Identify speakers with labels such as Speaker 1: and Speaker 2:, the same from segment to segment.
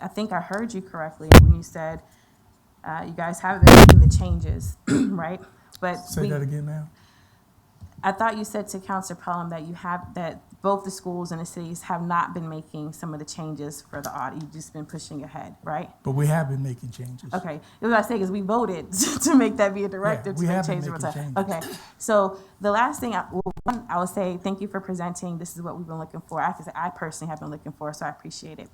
Speaker 1: I think I heard you correctly when you said, uh, you guys have been making the changes, right? But
Speaker 2: Say
Speaker 1: we,
Speaker 2: that again, ma'am.
Speaker 1: I thought you said to Council Pelham that you have, that both the schools and the cities have not been making some of the changes for the audit. You've just been pushing ahead, right?
Speaker 2: But we have been making changes.
Speaker 1: Okay, that's what I say, because we voted to make that be a directive
Speaker 2: Yeah,
Speaker 1: to
Speaker 2: we
Speaker 1: make
Speaker 2: have been
Speaker 1: changes.
Speaker 2: making
Speaker 1: over time. Okay, so the last thing, I, well, one, I will say, thank you for presenting, this is what we've been looking for. I can say I personally have been looking for, so I appreciate it.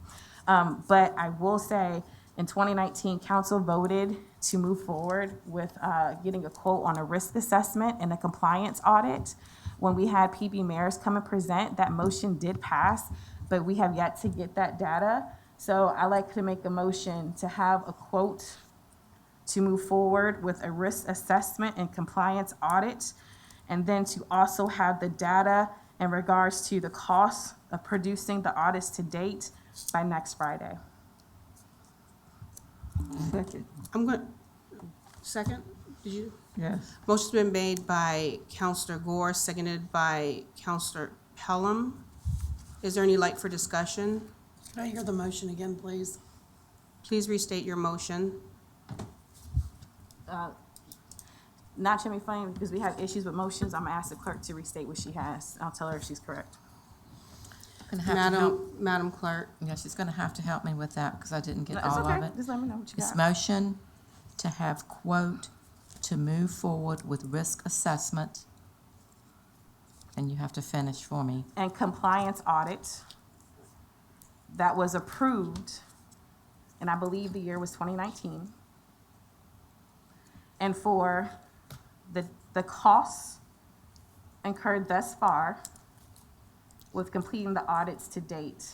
Speaker 1: Um, but I will say, in twenty nineteen, council voted to move forward with, uh, getting a quote on a risk assessment and a compliance audit. When we had PB mayors come and present, that motion did pass, but we have yet to get that data. So I like to make a motion to have a quote to move forward with a risk assessment and compliance audit, and then to also have the data in regards to the cost of producing the audits to date by next Friday.
Speaker 3: Second,
Speaker 4: I'm going, second, did you?
Speaker 3: yes.
Speaker 4: Motion's been made by Counselor Gore, seconded by Counselor Pelham. Is there any light for discussion?
Speaker 5: Could I hear the motion again, please?
Speaker 4: Please restate your motion.
Speaker 1: Not Jimmy Flame, because we have issues with motions, I'm gonna ask the clerk to restate what she has. I'll tell her if she's correct.
Speaker 3: Gonna have to help,
Speaker 4: Madam, Madam Clerk,
Speaker 3: yeah, she's gonna have to help me with that because I didn't get
Speaker 1: No, It's
Speaker 3: all of
Speaker 1: okay,
Speaker 3: it.
Speaker 1: just let me know what you
Speaker 3: It's
Speaker 1: got.
Speaker 3: motion to have quote to move forward with risk assessment. And you have to finish for me.
Speaker 1: And compliance audit that was approved, and I believe the year was twenty nineteen. and for the, the costs incurred thus far with completing the audits to date.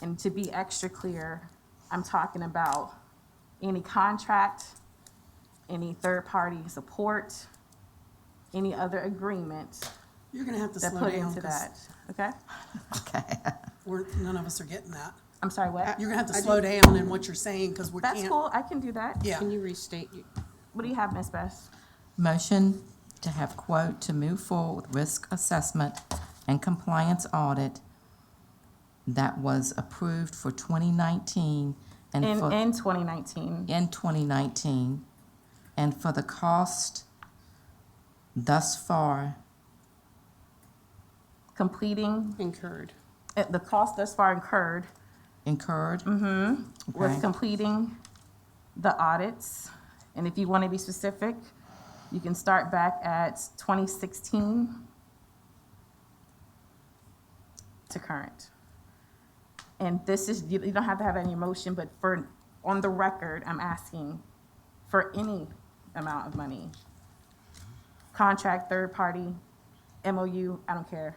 Speaker 1: And to be extra clear, I'm talking about any contract, any third-party support, any other agreement
Speaker 5: You're gonna have to
Speaker 1: that
Speaker 5: slow
Speaker 1: put
Speaker 5: down,
Speaker 1: into
Speaker 5: because
Speaker 1: that, okay?
Speaker 3: Okay.
Speaker 5: we're, none of us are getting that.
Speaker 1: I'm sorry, what?
Speaker 5: You're gonna have to slow down in what you're saying, because we can't.
Speaker 1: That's cool, I can do that.
Speaker 5: Yeah,
Speaker 4: can you restate? your-
Speaker 1: What do you have, Ms. Bess?
Speaker 3: Motion to have quote to move forward with risk assessment and compliance audit that was approved for twenty nineteen and
Speaker 1: In,
Speaker 3: for,
Speaker 1: in twenty nineteen,
Speaker 3: in twenty nineteen, and for the cost thus far
Speaker 1: completing,
Speaker 4: Incurred.
Speaker 1: uh, the cost thus far incurred
Speaker 3: incurred.
Speaker 4: Mm-hmm.
Speaker 1: with
Speaker 3: Okay.
Speaker 1: completing the audits. And if you want to be specific, you can start back at 2016 to current. And this is, you you don't have to have any motion, but for, on the record, I'm asking for any amount of money. Contract, third party, MOU, I don't care.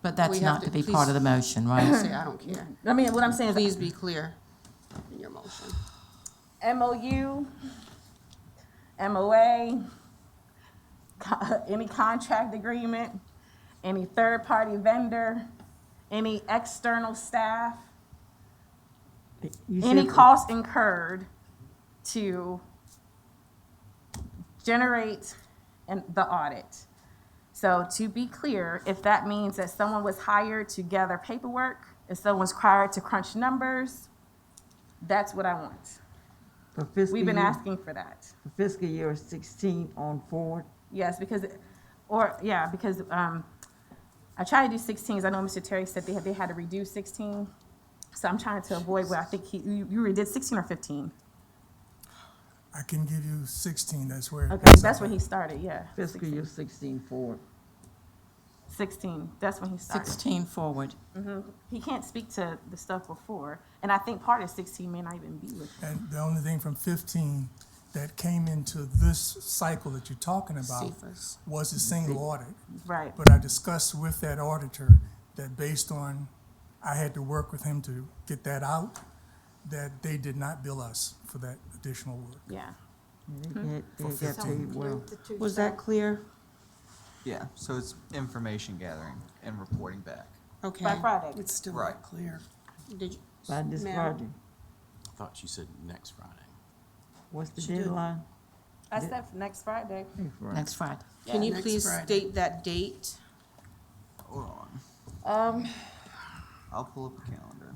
Speaker 3: But that's
Speaker 4: We have
Speaker 3: not
Speaker 4: to-
Speaker 3: to be part of the motion, right?
Speaker 4: Say, I don't care.
Speaker 1: I mean, what I'm saying is
Speaker 4: Please be clear in your motion.
Speaker 1: MOU, MOA, co- any contract agreement, any third-party vendor, any external staff,
Speaker 3: You
Speaker 1: any
Speaker 3: should-
Speaker 1: cost incurred to generate an, the audit. So to be clear, if that means that someone was hired to gather paperwork, if someone's hired to crunch numbers, that's what I want.
Speaker 6: For fiscal
Speaker 1: We've been
Speaker 6: year-
Speaker 1: asking for that.
Speaker 6: for Fiscal year sixteen on forward,
Speaker 1: Yes, because, or, yeah, because, um, I try to do sixteens, I know Mr. Terry said they had, they had to redo sixteen, so I'm trying to avoid what I think he, you, you redid sixteen or fifteen?
Speaker 2: I can give you sixteen, that's where.
Speaker 1: Okay, that's when he started, yeah.
Speaker 6: fiscal year sixteen forward.
Speaker 1: Sixteen, that's when he started.
Speaker 3: Sixteen forward.
Speaker 1: He can't speak to the stuff before, and I think part of sixteen may not even be with him.
Speaker 2: And the only thing from fifteen that came into this cycle that you're talking about
Speaker 4: Cephas.
Speaker 2: was the single audit.
Speaker 1: right,
Speaker 2: But I discussed with that auditor that based on, I had to work with him to get that out, that they did not bill us for that additional work.
Speaker 1: yeah. Mm-hmm.
Speaker 6: They get- they get paid well.
Speaker 4: Was that clear?
Speaker 7: Yeah, so it's information gathering and reporting back.
Speaker 4: Okay.
Speaker 1: By Friday,
Speaker 5: it's still
Speaker 7: Right.
Speaker 5: not clear.
Speaker 4: Did you?
Speaker 6: By this
Speaker 4: Ma'am.
Speaker 6: project,
Speaker 8: I thought you said next Friday.
Speaker 6: what's the
Speaker 5: did.
Speaker 6: deadline?
Speaker 1: I said next Friday.
Speaker 3: Next Friday.
Speaker 4: Can you
Speaker 5: next
Speaker 4: please
Speaker 5: Friday.
Speaker 4: state that date?
Speaker 7: Hold on.
Speaker 1: Um,
Speaker 7: I'll pull up the calendar.